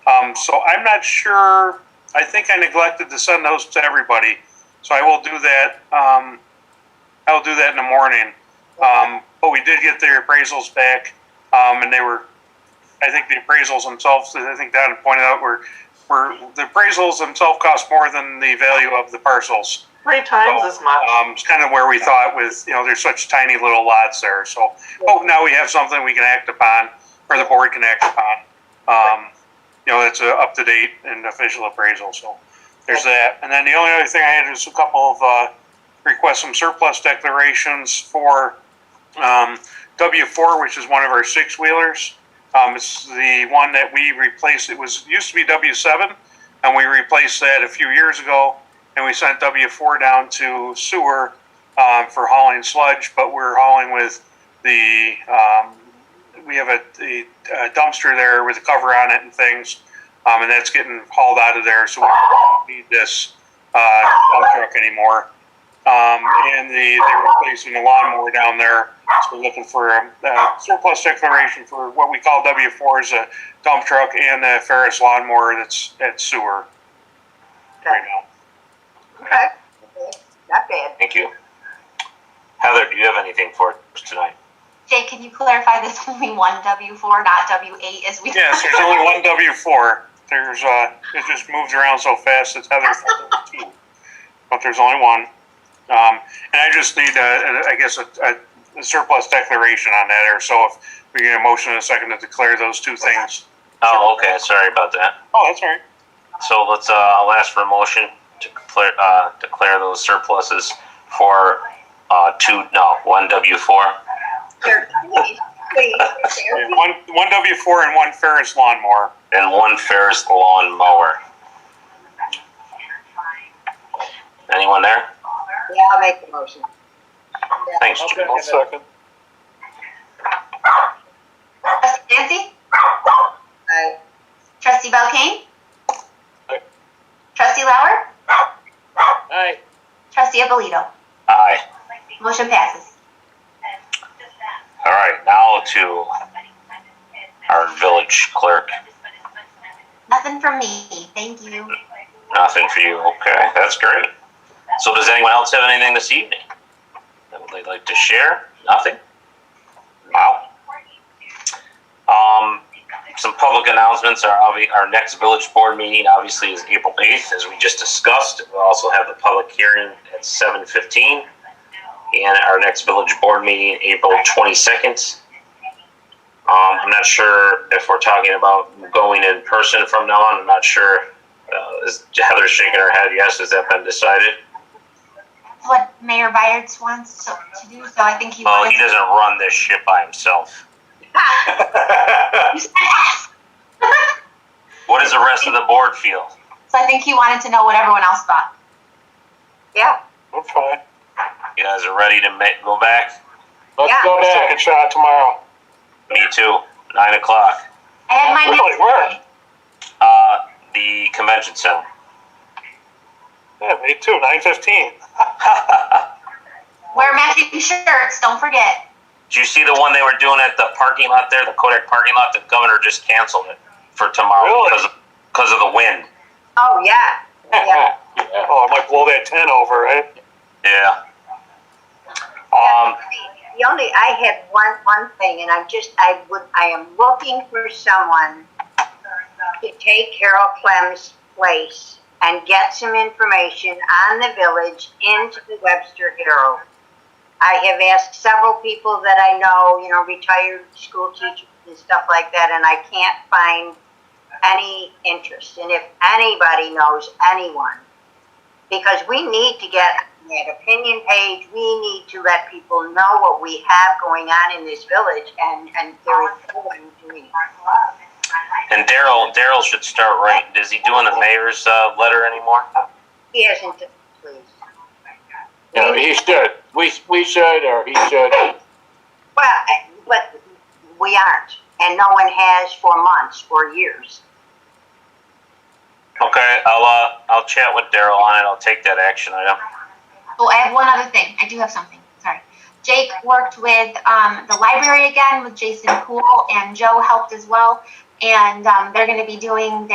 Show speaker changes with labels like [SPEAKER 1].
[SPEAKER 1] Um, so I'm not sure, I think I neglected to send those to everybody, so I will do that, um, I'll do that in the morning. Um, but we did get their appraisals back, um, and they were, I think the appraisals themselves, I think Don pointed out, were, were, the appraisals themselves cost more than the value of the parcels.
[SPEAKER 2] Three times as much.
[SPEAKER 1] Um, it's kind of where we thought with, you know, there's such tiny little lots there, so, oh, now we have something we can act upon, or the board can act upon. Um, you know, that's a up-to-date and official appraisal, so there's that. And then the only other thing I had is a couple of, uh, requests some surplus declarations for, um, W four, which is one of our six-wheelers. Um, it's the one that we replaced, it was, used to be W seven, and we replaced that a few years ago and we sent W four down to sewer um, for hauling sludge, but we're hauling with the um, we have a, a a dumpster there with a cover on it and things, um, and that's getting hauled out of there, so we don't need this uh, dump truck anymore. Um, and the, they're replacing a lawnmower down there, so we're looking for a, a surplus declaration for what we call W four is a dump truck and a Ferris lawnmower that's at sewer right now.
[SPEAKER 2] Okay. Not bad.
[SPEAKER 3] Thank you. Heather, do you have anything for us tonight?
[SPEAKER 4] Jay, can you clarify there's only one W four, not W eight as we?
[SPEAKER 1] Yes, there's only one W four. There's, uh, it just moves around so fast, it's Heather two. But there's only one. Um, and I just need, uh, I guess, a, a surplus declaration on that, or so if we get a motion in a second to declare those two things.
[SPEAKER 3] Oh, okay, sorry about that.
[SPEAKER 1] Oh, that's all right.
[SPEAKER 3] So let's, uh, I'll ask for a motion to declare, uh, declare those surpluses for, uh, two, no, one W four.
[SPEAKER 2] Here, please, please, here.
[SPEAKER 1] Yeah, One, one W four and one Ferris lawnmower.
[SPEAKER 3] and one Ferris lawn mower. Anyone there?
[SPEAKER 2] Yeah, I'll make the motion.
[SPEAKER 3] Thanks, Jim.
[SPEAKER 1] I'll second.
[SPEAKER 4] Trustee Nancy?
[SPEAKER 2] Aye.
[SPEAKER 4] Trustee Belkane?
[SPEAKER 1] Aye.
[SPEAKER 4] Trustee Lauer?
[SPEAKER 1] Aye.
[SPEAKER 4] Trustee Abolito?
[SPEAKER 3] Aye.
[SPEAKER 4] Motion passes.
[SPEAKER 3] All right, now to our village clerk.
[SPEAKER 4] Nothing from me. Thank you.
[SPEAKER 3] Nothing for you. Okay, that's great. So does anyone else have anything this evening that they'd like to share? Nothing? Wow. Um, some public announcements. Our, obvi- our next village board meeting obviously is April 8th, as we just discussed. We'll also have the public hearing at 7.15. And our next village board meeting, April 22nd. Um, I'm not sure if we're talking about going in person from now on. I'm not sure uh, is Heather shaking her head? Yes. Has that been decided?
[SPEAKER 4] That's what Mayor Byards wants so- to do, so I think he
[SPEAKER 3] Well, Oh, he
[SPEAKER 4] wanted.
[SPEAKER 3] doesn't run this ship by himself.
[SPEAKER 4] You said ask.
[SPEAKER 3] what does the rest of the board feel?
[SPEAKER 4] So I think he wanted to know what everyone else thought.
[SPEAKER 2] Yeah,
[SPEAKER 1] I'm fine.
[SPEAKER 3] You guys are ready to ma- go back?
[SPEAKER 2] Let's Yeah. go
[SPEAKER 1] back. Second shot tomorrow.
[SPEAKER 3] Me too. Nine o'clock.
[SPEAKER 4] I had my
[SPEAKER 1] Really?
[SPEAKER 4] next
[SPEAKER 1] Where?
[SPEAKER 4] day.
[SPEAKER 3] Uh, the convention center.
[SPEAKER 1] Yeah, me too, nine fifteen.
[SPEAKER 4] Wear matching shirts, don't forget.
[SPEAKER 3] Did you see the one they were doing at the parking lot there, the Kodak parking lot? The governor just canceled it for tomorrow
[SPEAKER 1] Really?
[SPEAKER 3] because of, because of the wind.
[SPEAKER 2] oh, yeah, yeah.
[SPEAKER 1] Oh, I might blow that ten over, right?
[SPEAKER 3] Yeah. Um,
[SPEAKER 2] The only, I had one, one thing, and I'm just, I would, I am looking for someone to take Carol Clem's place and get some information on the village into the Webster Herald. I have asked several people that I know, you know, retired school teachers and stuff like that, and I can't find any interest. And if anybody knows anyone, because we need to get that opinion page, we need to let people know what we have going on in this village, and, and there is no one doing it.
[SPEAKER 3] and Daryl, Daryl should start writing. Is he doing the mayor's uh, letter anymore?
[SPEAKER 2] He hasn't, please.
[SPEAKER 5] No, he should. We, we should, or he should.
[SPEAKER 2] Well, I- but we aren't, and no one has for months or years.
[SPEAKER 3] Okay, I'll, uh, I'll chat with Daryl on it, I'll take that action item.
[SPEAKER 4] Oh, I have one other thing. I do have something. Sorry. Jake worked with um, the library again with Jason Poole, and Joe helped as well. And um, they're going to be doing